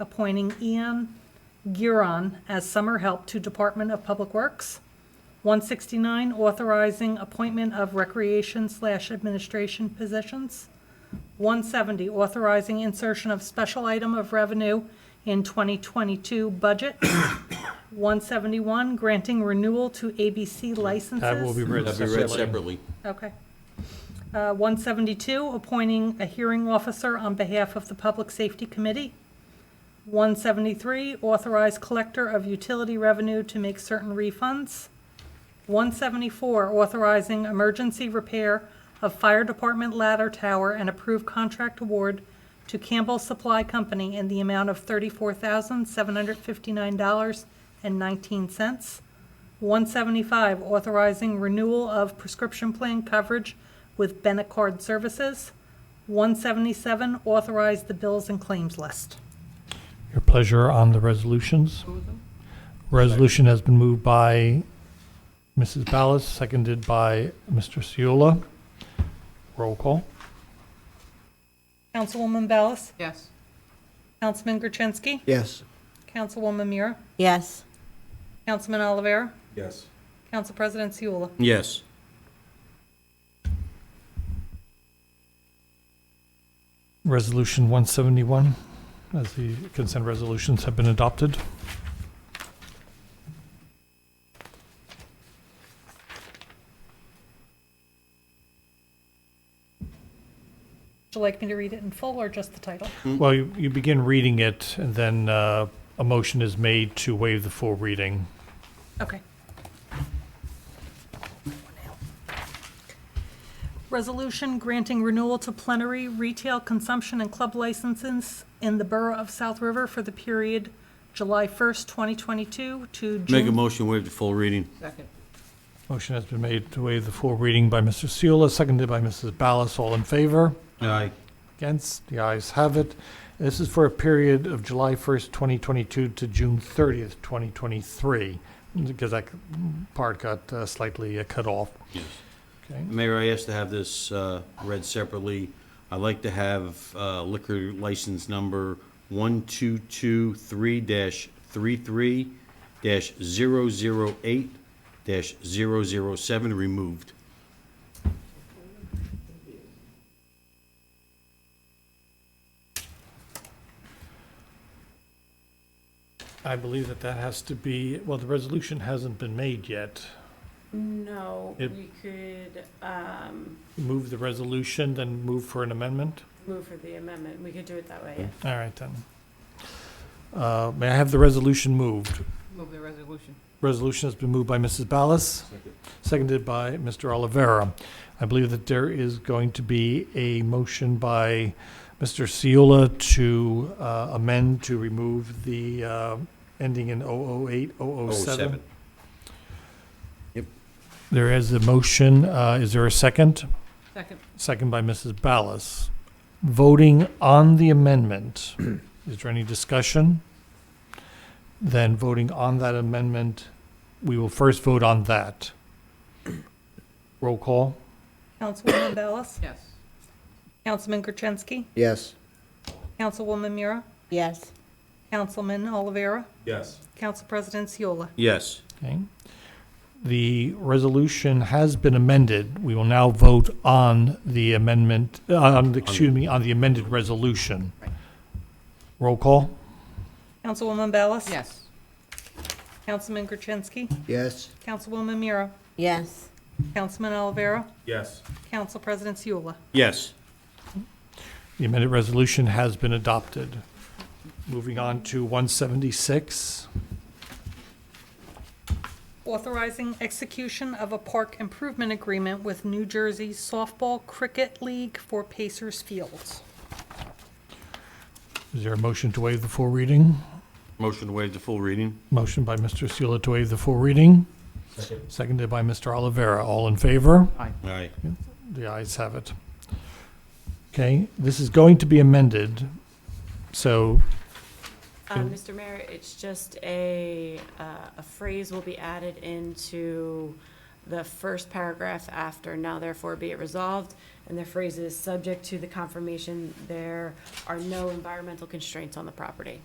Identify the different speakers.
Speaker 1: appointing Ian Giron as summer help to Department of Public Works. 169, authorizing appointment of recreation slash administration positions. 170, authorizing insertion of special item of revenue in 2022 budget. 171, granting renewal to ABC licenses.
Speaker 2: That will be read
Speaker 3: That'd be read
Speaker 2: separately.
Speaker 1: Okay.
Speaker 3: separately.
Speaker 1: Uh, 172, appointing a hearing officer on behalf of the Public Safety Committee. 173, authorize collector of utility revenue to make certain refunds. 174, authorizing emergency repair of fire department ladder tower and approve contract award to Campbell Supply Company in the amount of $34,759.19. 175, authorizing renewal of prescription plan coverage with Benecard Services. 177, authorize the bills and claims list.
Speaker 2: Your pleasure on the resolutions. Resolution has been moved by Mrs. Ballas, seconded by Mr. Seola. Roll call.
Speaker 1: Councilwoman Ballas?
Speaker 4: Yes.
Speaker 1: Councilman Gertensky?
Speaker 3: Yes.
Speaker 1: Councilwoman Mira?
Speaker 5: yes,
Speaker 1: Councilman Olivera?
Speaker 3: Yes.
Speaker 1: Council President Seula?
Speaker 3: Yes.
Speaker 2: Resolution 171, as the consent resolutions have been adopted.
Speaker 1: Would you like me to read it in full or just the title?
Speaker 3: Hmm.
Speaker 2: Well, you you begin reading it, and then uh, a motion is made to waive the full reading.
Speaker 1: Okay. Resolution granting renewal to plenary retail consumption and club licenses in the Borough of South River for the period July 1st, 2022 to
Speaker 3: Make a
Speaker 1: June.
Speaker 3: motion, waive the full reading.
Speaker 4: Second.
Speaker 2: Motion has been made to waive the full reading by Mr. Seola, seconded by Mrs. Ballas. All in favor?
Speaker 3: Aye.
Speaker 2: Against, the ayes have it. This is for a period of July 1st, 2022 to June 30th, 2023, because that part got uh, slightly uh, cut off.
Speaker 3: Yes.
Speaker 2: Okay,
Speaker 3: Mayor, I asked to have this uh, read separately. I'd like to have uh, liquor license number 1223-33-008-007 removed.
Speaker 2: I believe that that has to be, well, the resolution hasn't been made yet.
Speaker 4: No,
Speaker 2: It-
Speaker 4: we could um,
Speaker 2: Move the resolution, then move for an amendment?
Speaker 4: move for the amendment. We could do it that way.
Speaker 2: All right, then. Uh, May I have the resolution moved?
Speaker 4: Move the resolution.
Speaker 2: Resolution has been moved by Mrs. Ballas, seconded by Mr. Olivera. I believe that there is going to be a motion by Mr. Seola to uh, amend to remove the uh, ending in 008, 007. There is a motion. Uh, Is there a second?
Speaker 4: Second.
Speaker 2: Second by Mrs. Ballas. Voting on the amendment. Is there any discussion? Then voting on that amendment, we will first vote on that. Roll call?
Speaker 1: Councilwoman Ballas?
Speaker 4: Yes.
Speaker 1: Councilman Gertensky?
Speaker 6: Yes.
Speaker 1: Councilwoman Mira?
Speaker 5: yes,
Speaker 1: Councilman Olivera?
Speaker 3: Yes.
Speaker 1: Council President Seola?
Speaker 3: Yes.
Speaker 2: Okay. The resolution has been amended. We will now vote on the amendment, uh, on, the- excuse me, on the amended resolution. Roll call?
Speaker 1: Councilwoman Ballas?
Speaker 4: Yes.
Speaker 1: Councilman Gertensky?
Speaker 6: Yes.
Speaker 1: Councilwoman Mira?
Speaker 5: yes,
Speaker 1: Councilman Olivera?
Speaker 3: Yes.
Speaker 1: Council President Seola?
Speaker 3: Yes.
Speaker 2: The amended resolution has been adopted. Moving on to 176.
Speaker 1: Authorizing execution of a park improvement agreement with New Jersey Softball Cricket League for Pacers Field.
Speaker 2: Is there a motion to waive the full reading?
Speaker 3: Motion to waive the full reading.
Speaker 2: Motion by Mr. Seula to waive the full reading, seconded by Mr. Olivera. All in favor?
Speaker 3: Aye.
Speaker 2: The ayes have it. Okay, this is going to be amended, so, Good.
Speaker 4: Mr. Uh, Mayor, it's just a, uh, a phrase will be added into the first paragraph after now therefore be it resolved. And the phrase is subject to the confirmation there are no environmental constraints on the property.